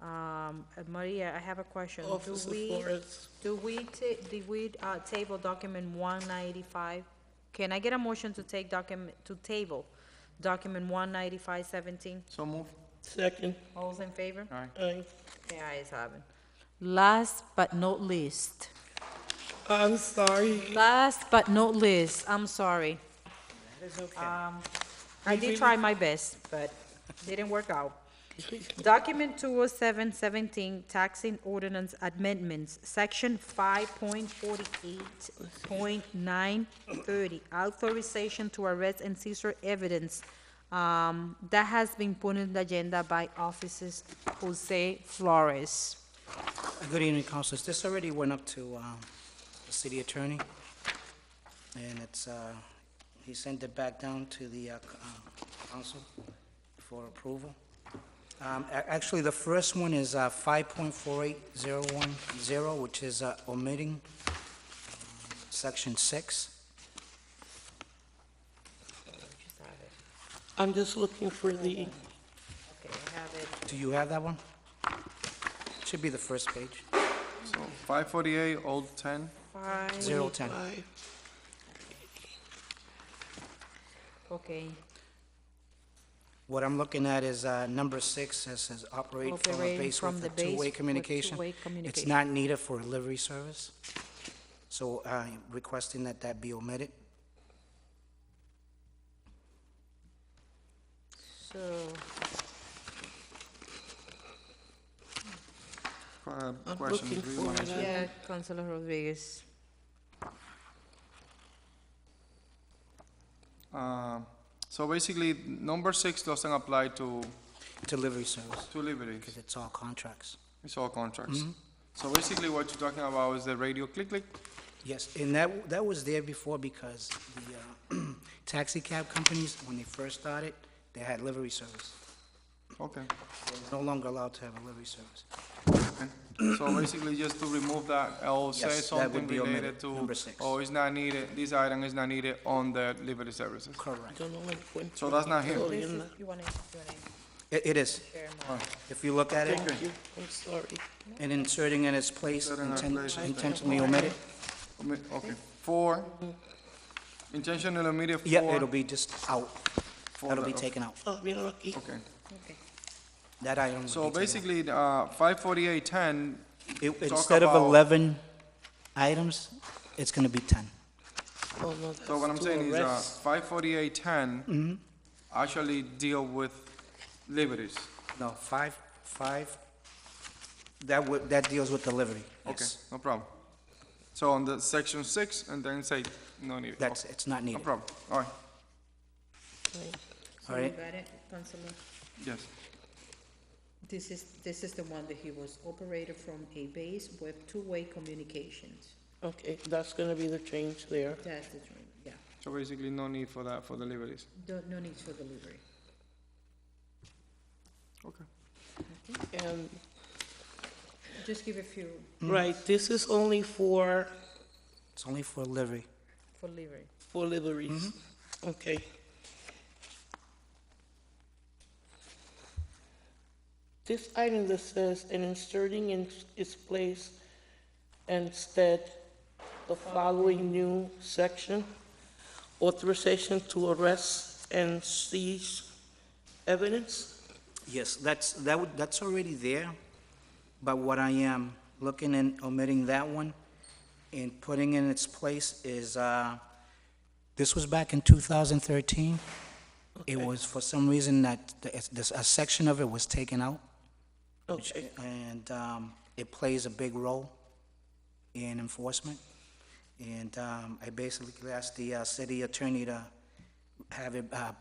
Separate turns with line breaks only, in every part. Um, uh, Maria, I have a question. Do
Officer
we-
Flores.
Do we, ta- do we uh, table document 195? Can I get a motion to take document, to table document 19517?
So move.
Second,
All's in favor?
Aye.
aye.
The ayes have it. Last but not least,
I'm sorry.
last but not least, I'm sorry. Um, I did try my best, but didn't work out. Document 20717, Taxing Ordinance Amendments, Section 5.48.930, Authorization to Arrest and Seizure Evidence. Um, That has been put on the agenda by Officers Jose Flores.
Good evening, councilors. This already went up to um, the city attorney, and it's, uh, he sent it back down to the uh, c- uh, council for approval. Um, a- Actually, the first one is uh, 5.48010, which is uh, omitting um, section six.
I'm just looking for the,
Okay, I have it.
Do you have that one? Should be the first page,
So five forty-eight, old ten.
Five,
010.
aye.
okay.
What I'm looking at is uh, number six, that says operate from a
Operating
base
from
with
the
a
base
two-way
with
communication.
two-way
It's
communication.
not needed for delivery service, so I'm requesting that that be omitted.
So,
Uh,
I'm
Question.
looking
do you wanna-
for that.
yeah, Councilor Rodriguez.
Uh, So basically, number six doesn't apply to,
Delivery service,
to livery.
because it's all contracts.
It's all contracts.
Mm-hmm.
So basically, what you're talking about is the radio click click.
Yes, and that, that was there before because the uh, taxi cab companies, when they first started, they had livery service.
Okay.
They're no longer allowed to have a livery service.
So basically, just to remove that, I'll say
Yes, that would
something
be
related
omitted,
to,
number six.
oh, it's not needed, this item is not needed on the livery services.
Correct.
Don't know like when.
So that's not here.
Totally
This
in
is-
the-
You want to, you want to
It it is.
share more?
If you look at it,
Thank you, I'm sorry.
and inserting in its place,
Inserting in its
inten-
place.
intentionally omitted,
Omi- Okay, four, intentional omitted four.
yeah, it'll be just out.
four
That'll be
that-
taken out.
Oh, mira aquí.
Okay.
Okay.
That item would
So
be taken
basically, uh, five forty-eight ten,
out. It-
talk
Instead of
about-
11 items, it's going to be 10.
Oh, no,
so what I'm
that's
saying
to
is, uh,
arrest.
five forty-eight
Mm-hmm.
ten actually deal with liveries.
No, five, five, that would, that deals with delivery,
Okay,
yes.
no problem. So on the section six, and then say, no needed.
That's, it's not
No
needed, all
problem, all right,
So you
right?
got it, Councilor?
yes.
This is, this is the one that he was operated from a base with two-way communications.
uh,
Okay, that's gonna be the change there.
That's the dream, yeah.
So basically, no need for that, for deliveries.
No, no need for delivery.
Okay.
And,
Just give a few
right, this is only for,
It's only for delivery.
for delivery.
for liveries. Okay, this item that says, and inserting in its place instead the following new section, authorization to arrest and seize evidence.
Yes, that's, that would, that's already there, but what I am looking and omitting that one and putting in its place is, uh, this was back in 2013. It was, for some reason, that, the- this, a section of it was taken out.
Okay,
and um, it plays a big role in enforcement. And um, I basically asked the uh, city attorney to have it uh,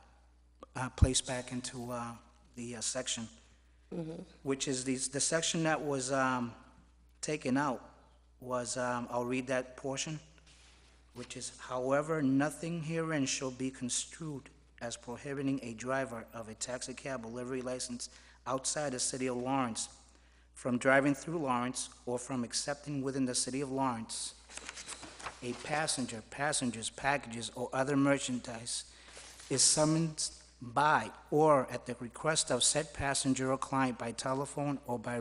uh, placed back into uh, the uh, section, which is the, the section that was um, taken out was, um, I'll read that portion, which is, however, nothing herein shall be construed as prohibiting a driver of a taxi cab or livery license outside the city of Lawrence from driving through Lawrence or from accepting within the city of Lawrence a passenger, passengers, packages, or other merchandise is summoned by or at the request of said passenger or client by telephone or by